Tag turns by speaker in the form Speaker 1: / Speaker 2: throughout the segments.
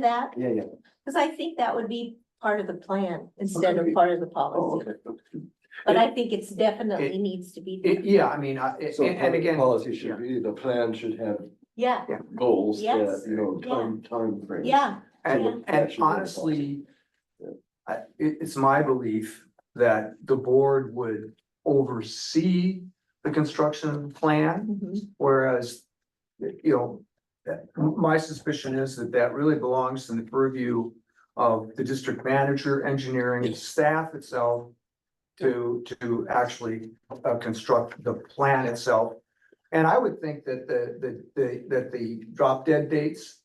Speaker 1: that?
Speaker 2: Yeah, yeah.
Speaker 1: Cause I think that would be part of the plan instead of
Speaker 2: Okay.
Speaker 1: part of the
Speaker 2: Oh,
Speaker 1: policy.
Speaker 2: okay. okay.
Speaker 1: But I think it's definitely
Speaker 3: It-
Speaker 1: needs to be,
Speaker 3: It-
Speaker 1: there.
Speaker 3: yeah, I mean, I, it-
Speaker 2: So
Speaker 3: and, and
Speaker 2: public
Speaker 3: again.
Speaker 2: policy
Speaker 3: yeah.
Speaker 2: should be, the plan should have
Speaker 1: yeah,
Speaker 2: goals that,
Speaker 1: Yes.
Speaker 2: you know, time, timeframes.
Speaker 1: yeah, Yeah.
Speaker 2: That
Speaker 3: And, and
Speaker 2: should be
Speaker 3: honestly,
Speaker 2: Yeah.
Speaker 3: I, it, it's my belief that the board would oversee the construction plan,
Speaker 1: mhm,
Speaker 3: whereas, you know, that- my suspicion is that that really belongs in the purview of the district manager, engineering, and staff itself to, to actually uh, construct the plan itself. And I would think that the, the, the, that the drop dead dates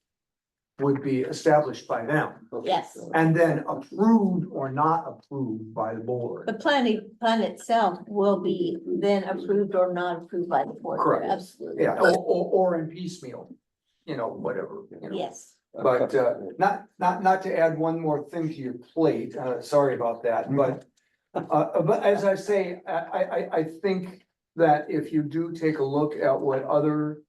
Speaker 3: would be established by them
Speaker 2: Okay.
Speaker 1: Yes.
Speaker 3: and then approved or not approved by the
Speaker 1: the
Speaker 3: board.
Speaker 1: planning, plan itself will be then approved or not approved by the board.
Speaker 3: Correct.
Speaker 1: Absolutely.
Speaker 3: Yeah, or, or, or in piecemeal, you know, whatever, you know.
Speaker 1: Yes,
Speaker 3: But uh, not, not, not to add one more thing to your plate, uh, sorry about that, but. Uh, but as I say, I, I, I, I think that if you do take a look at what other.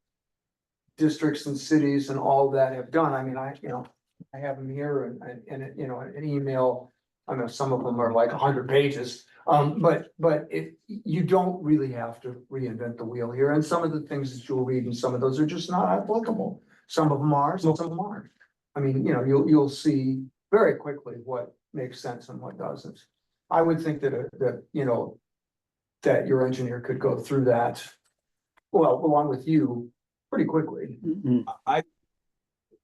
Speaker 3: Districts and cities and all that have done, I mean, I, you know, I have them here and, and, and, you know, an email. I know some of them are like hundred pages, um, but, but if, you don't really have to reinvent the wheel here, and some of the things that you'll read and some of those are just not applicable. Some of them are, some of them aren't. I mean, you know, you'll, you'll see very quickly what makes sense and what doesn't. I would think that, a- that, you know, that your engineer could go through that, well, along with you, pretty quickly.
Speaker 4: I,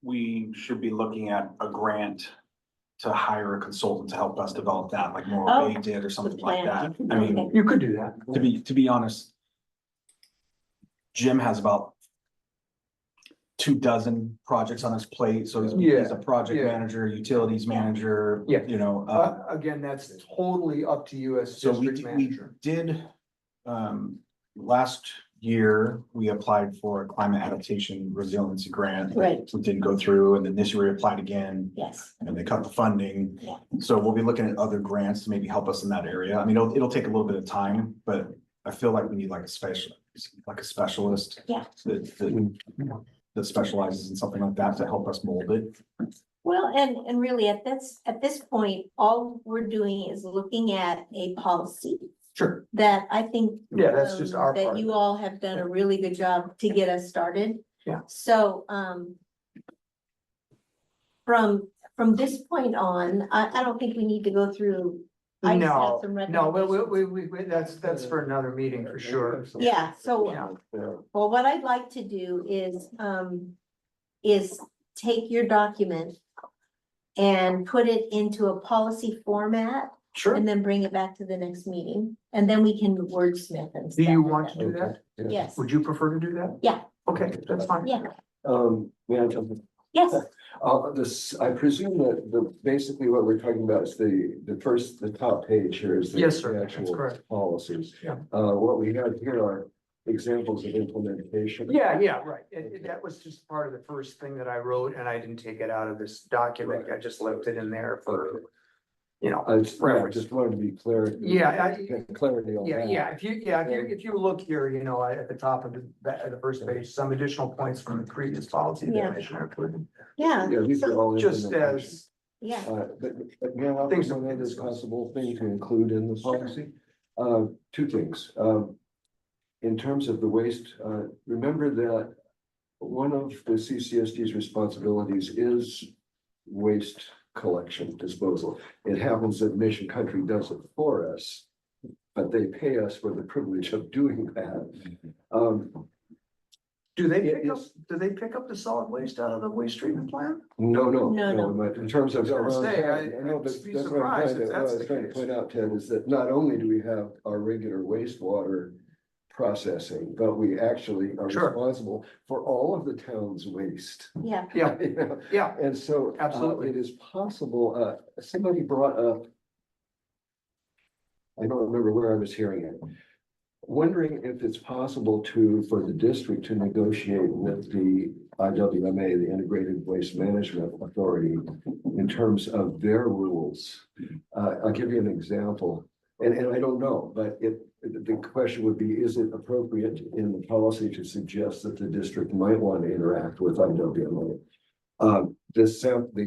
Speaker 4: we should be looking at a grant to hire a consultant to help us develop that, like
Speaker 1: Oh,
Speaker 4: Morro Bay did or something like that.
Speaker 1: plan.
Speaker 4: I mean,
Speaker 3: You could do that.
Speaker 4: to be, to be honest, Jim has about two dozen projects on his plate, so he's, he's a project
Speaker 3: Yeah, yeah.
Speaker 4: manager, utilities manager,
Speaker 3: Yeah.
Speaker 4: you know, uh,
Speaker 3: Uh, again, that's totally up to you as
Speaker 4: So we
Speaker 3: district
Speaker 4: d- we-
Speaker 3: manager.
Speaker 4: did, um, last year, we applied for a climate adaptation resiliency grant.
Speaker 1: Right.
Speaker 4: We didn't go through, and then this year we applied again,
Speaker 1: yes,
Speaker 4: and they cut the funding.
Speaker 1: Yeah.
Speaker 4: So we'll be looking at other grants to maybe help us in that area. I mean, it'll, it'll take a little bit of time, but I feel like we need like a special, like a specialist.
Speaker 1: Yeah.
Speaker 4: That, that, that specializes in something like that to help us mold it.
Speaker 1: well, and, and really at this, at this point, all we're doing is looking at a policy.
Speaker 3: Sure.
Speaker 1: that I think.
Speaker 3: Yeah, that's just
Speaker 1: um,
Speaker 3: our part.
Speaker 1: That you all have done a really good job to get us started.
Speaker 3: Yeah.
Speaker 1: So, um. From, from this point on, I, I don't think we need to go through. I just have
Speaker 3: No,
Speaker 1: some
Speaker 3: no, we, we,
Speaker 1: recommendations.
Speaker 3: we, we- we, that's, that's for another meeting for sure.
Speaker 1: Yeah, so-
Speaker 2: Yeah.
Speaker 1: Well, what I'd like to do is, um, is take your document. And put it into a policy format
Speaker 3: Sure.
Speaker 1: and then bring it back to the next meeting. And then we can wordsmith and.
Speaker 3: Do
Speaker 1: stuff
Speaker 3: you
Speaker 1: like
Speaker 3: want
Speaker 1: that.
Speaker 3: to do that?
Speaker 2: Yeah.
Speaker 1: Yes,
Speaker 3: Would you prefer to do that?
Speaker 1: Yeah.
Speaker 3: Okay, that's fine.
Speaker 1: yeah,
Speaker 2: Um, may I jump in?
Speaker 1: yes.
Speaker 2: Uh, this, I presume that the, basically what we're talking about is the, the first, the top page here is. the-
Speaker 3: Yes, sir,
Speaker 2: the
Speaker 3: that's
Speaker 2: actual
Speaker 3: correct.
Speaker 2: Policies.
Speaker 3: Yeah.
Speaker 2: Uh, what we have here are examples of implementation.
Speaker 3: Yeah, yeah, right. It- it- that was just part of the first thing that I wrote and I didn't take it out of this document. I just left it in there for, you know.
Speaker 2: I just, I
Speaker 3: Reference.
Speaker 2: just wanted to be clear.
Speaker 3: Yeah, I-
Speaker 2: Get Clarity on
Speaker 3: Yeah,
Speaker 2: that.
Speaker 3: yeah, if you, Oh, yeah, if you, if you look here, you know, at the top of the, at the first page, some additional points from the previous policy
Speaker 1: Yeah.
Speaker 3: that Commissioner put.
Speaker 1: Yeah,
Speaker 2: Yeah, these are all.
Speaker 3: Just
Speaker 2: implementation.
Speaker 3: as,
Speaker 1: yeah,
Speaker 2: Uh, but, but now, I
Speaker 3: Things
Speaker 2: think
Speaker 3: don't-
Speaker 2: that is possible thing to include in the policy. Uh, two things, um. In terms of the waste, uh, remember that. One of the CCSD's responsibilities is waste collection disposal. It happens that Mission Country does it for us. But they pay us for the privilege of doing that. Um,
Speaker 3: do they
Speaker 2: It
Speaker 3: pick up,
Speaker 2: is-
Speaker 3: do they pick up the solid waste out of the waste treatment plant?
Speaker 2: no, no,
Speaker 1: No,
Speaker 2: no, but in terms of.
Speaker 3: I was gonna say, I-
Speaker 2: know,
Speaker 3: I'd
Speaker 2: but
Speaker 3: be
Speaker 2: that's what I'm trying
Speaker 3: surprised if
Speaker 2: to- what
Speaker 3: that's
Speaker 2: I was
Speaker 3: the
Speaker 2: trying to
Speaker 3: case.
Speaker 2: Point out, Ted, is that not only do we have our regular wastewater processing, but we actually are
Speaker 3: Sure.
Speaker 2: responsible for all of the town's waste.
Speaker 1: yeah.
Speaker 3: Yeah,
Speaker 2: You know?
Speaker 3: yeah,
Speaker 2: And so. uh,
Speaker 3: Absolutely.
Speaker 2: It is possible, uh, somebody brought up. I don't remember where I was hearing it. Wondering if it's possible to, for the district to negotiate with the IWMA, the Integrated Waste Management Authority. In terms of their rules, uh, I'll give you an example, and, and I don't know, but it, the question would be, is it appropriate in the policy to Uh, suggest that the district might want to interact with IWMA? Um, this, sound- the